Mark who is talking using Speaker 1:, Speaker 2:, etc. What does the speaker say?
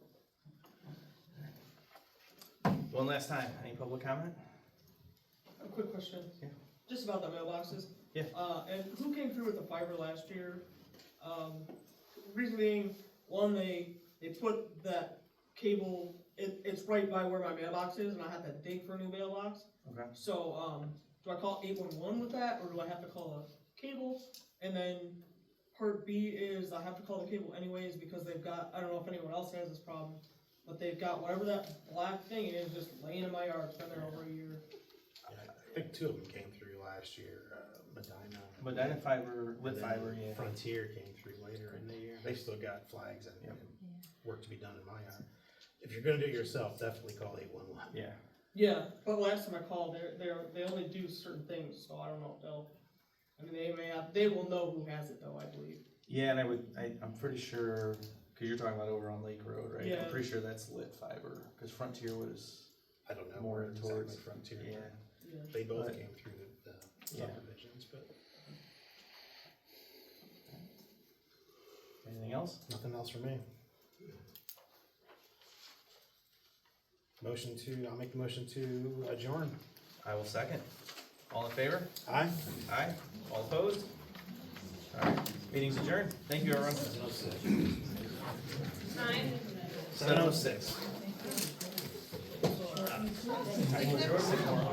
Speaker 1: One last time, any public comment?
Speaker 2: A quick question.
Speaker 1: Yeah.
Speaker 2: Just about the mailboxes.
Speaker 1: Yeah.
Speaker 2: Uh, and who came through with the fiber last year? Um, reason being, one, they, they put that cable, it, it's right by where my mailbox is, and I had to dig for a new mailbox.
Speaker 1: Okay.
Speaker 2: So, um, do I call eight one one with that, or do I have to call a cable? And then part B is I have to call the cable anyways, because they've got, I don't know if anyone else has this problem, but they've got whatever that black thing is just laying in my yard, it's been there over a year.
Speaker 3: I think two of them came through last year, uh, Medina.
Speaker 1: Medina Fiber,
Speaker 3: and
Speaker 1: Lit
Speaker 3: then
Speaker 1: Fiber, yeah.
Speaker 3: Frontier came through later in the year. They still got flags and
Speaker 1: Yep.
Speaker 3: and work to be done in my yard. If you're gonna do it yourself, definitely call eight one one.
Speaker 1: Yeah,
Speaker 2: Yeah, but last time I called, they're, they're, they only do certain things, so I don't know if they'll, I mean, they may have, they will know who has it though, I believe.
Speaker 1: yeah, and I would, I, I'm pretty sure, cause you're talking about over on Lake Road, right?
Speaker 2: Yeah.
Speaker 1: I'm pretty sure that's Lit Fiber, cause Frontier was,
Speaker 3: I don't know
Speaker 1: More
Speaker 3: where exactly
Speaker 1: towards-
Speaker 3: Frontier.
Speaker 1: yeah,
Speaker 2: Yeah.
Speaker 3: They both
Speaker 1: But-
Speaker 3: came through the- the
Speaker 1: Yeah.
Speaker 3: subdivisions, but
Speaker 1: anything else?
Speaker 3: nothing else for me. Motion to, I'll make the motion to adjourn.
Speaker 1: I will second. All in favor?
Speaker 3: Aye?
Speaker 1: Aye. All opposed? Alright, meeting's adjourned. Thank you, everyone. Seven oh six.